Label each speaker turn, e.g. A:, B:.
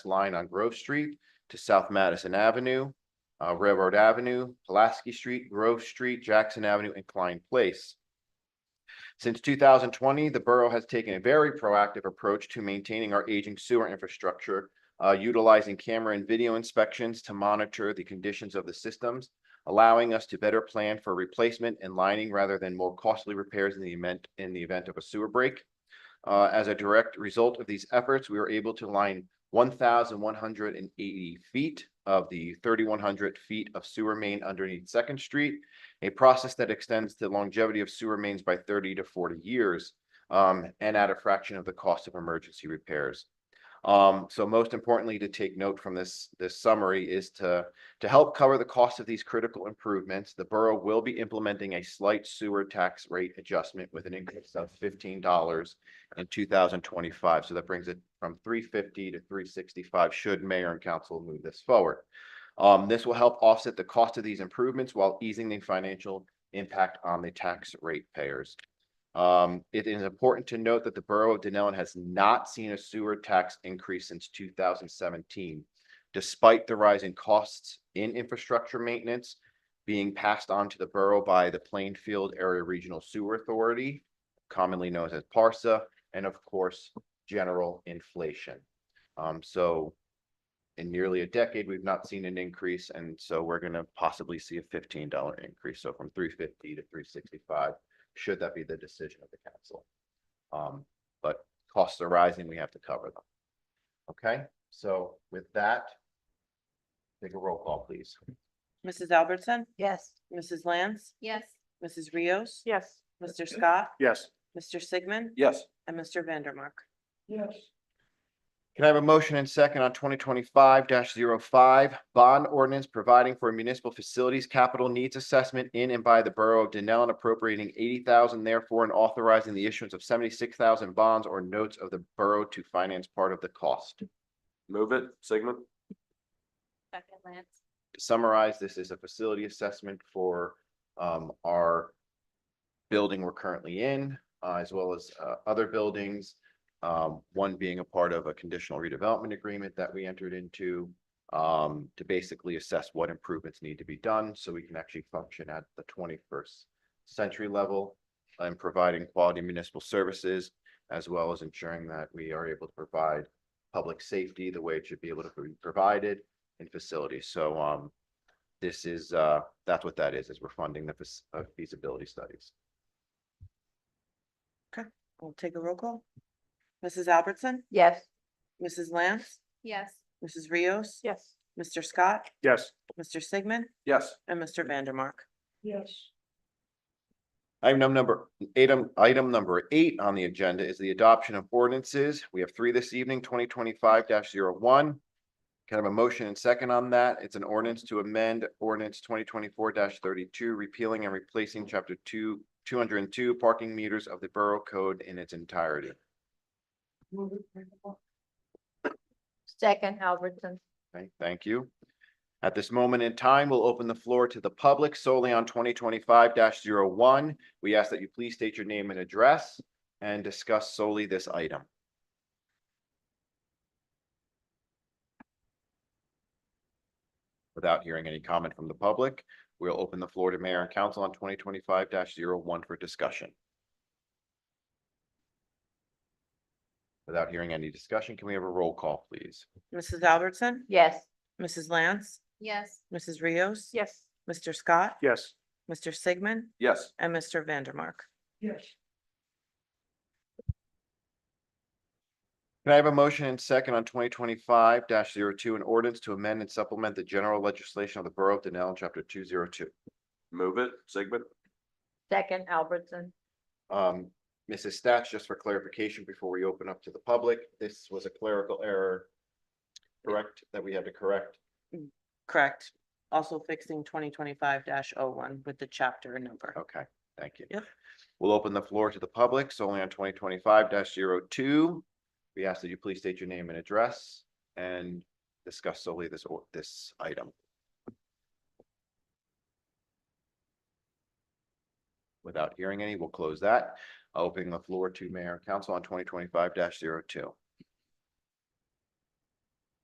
A: line on Grove Street to South Madison Avenue, uh, Railroad Avenue, Pulaski Street, Grove Street, Jackson Avenue, and Klein Place. Since two thousand twenty, the borough has taken a very proactive approach to maintaining our aging sewer infrastructure, uh, utilizing camera and video inspections to monitor the conditions of the systems, allowing us to better plan for replacement and lining rather than more costly repairs in the event, in the event of a sewer break. Uh, as a direct result of these efforts, we were able to line one thousand one hundred and eighty feet of the thirty-one hundred feet of sewer main underneath Second Street, a process that extends the longevity of sewer mains by thirty to forty years, um, and at a fraction of the cost of emergency repairs. Um, so most importantly, to take note from this, this summary is to, to help cover the cost of these critical improvements, the borough will be implementing a slight sewer tax rate adjustment with an increase of fifteen dollars in two thousand twenty-five. So that brings it from three fifty to three sixty-five, should mayor and council move this forward. Um, this will help offset the cost of these improvements while easing the financial impact on the tax rate payers. Um, it is important to note that the borough of Denellen has not seen a sewer tax increase since two thousand seventeen. Despite the rise in costs in infrastructure maintenance being passed on to the borough by the Plainfield Area Regional Sewer Authority, commonly known as Parsa, and of course, general inflation. Um, so in nearly a decade, we've not seen an increase, and so we're gonna possibly see a fifteen dollar increase, so from three fifty to three sixty-five, should that be the decision of the council. Um, but costs are rising, we have to cover them. Okay, so with that, take a roll call, please.
B: Mrs. Albertson,
C: Yes.
B: Mrs. Lance,
C: Yes.
B: Mrs. Rios,
C: Yes.
B: Mr. Scott,
D: Yes.
B: Mr. Sigmund,
D: Yes.
B: and Mr. Vandermark.
D: Yes.
A: Can I have a motion and second on twenty twenty-five 5 bond ordinance providing for municipal facilities capital needs assessment in and by the borough of Denellen appropriating eighty thousand therefore and authorizing the issuance of seventy-six thousand bonds or notes of the borough to finance part of the cost.
D: Move it, Sigmund?
C: Second Lance.
A: To summarize, this is a facility assessment for um our building we're currently in, uh, as well as uh other buildings. Um, one being a part of a conditional redevelopment agreement that we entered into um to basically assess what improvements need to be done so we can actually function at the twenty-first century level and providing quality municipal services as well as ensuring that we are able to provide public safety the way it should be able to be provided and facilities. So um, this is, uh, that's what that is, is we're funding the fas- uh, feasibility studies.
B: We'll take a roll call. Mrs. Albertson,
C: Yes.
B: Mrs. Lance,
C: Yes.
B: Mrs. Rios,
C: Yes.
B: Mr. Scott,
D: Yes.
B: Mr. Sigmund,
D: Yes.
B: and Mr. Vandermark.
D: Yes.
A: Item number, item, item number eight on the agenda is the adoption of ordinances. We have three this evening, twenty twenty-five one Kind of a motion and second on that. It's an ordinance to amend ordinance twenty twenty-four thirty-two, repealing and replacing chapter two, two hundred and two parking meters of the Borough Code in its entirety.
C: Second Albertson.
A: Okay, thank you. At this moment in time, we'll open the floor to the public solely on twenty twenty-five one We ask that you please state your name and address and discuss solely this item. Without hearing any comment from the public, we'll open the floor to mayor and council on twenty twenty-five one for discussion. Without hearing any discussion, can we have a roll call, please?
B: Mrs. Albertson,
C: Yes.
B: Mrs. Lance,
C: Yes.
B: Mrs. Rios.
C: Yes.
B: Mr. Scott,
D: Yes.
B: Mr. Sigmund,
D: Yes.
B: and Mr. Vandermark.
D: Yes.
A: Can I have a motion and second on twenty twenty-five 2 an ordinance to amend and supplement the general legislation of the Borough of Denellen, chapter two zero two?
D: Move it, Sigmund?
C: Second Albertson.
A: Um, Mrs. Stats, just for clarification before we open up to the public, this was a clerical error. Correct, that we had to correct.
B: Correct. Also fixing twenty twenty-five oh one with the chapter and number.
A: Okay, thank you.
B: Yep.
A: We'll open the floor to the public solely on twenty twenty-five 2 We ask that you please state your name and address and discuss solely this or this item. Without hearing any, we'll close that. Opening the floor to mayor and council on twenty twenty-five 2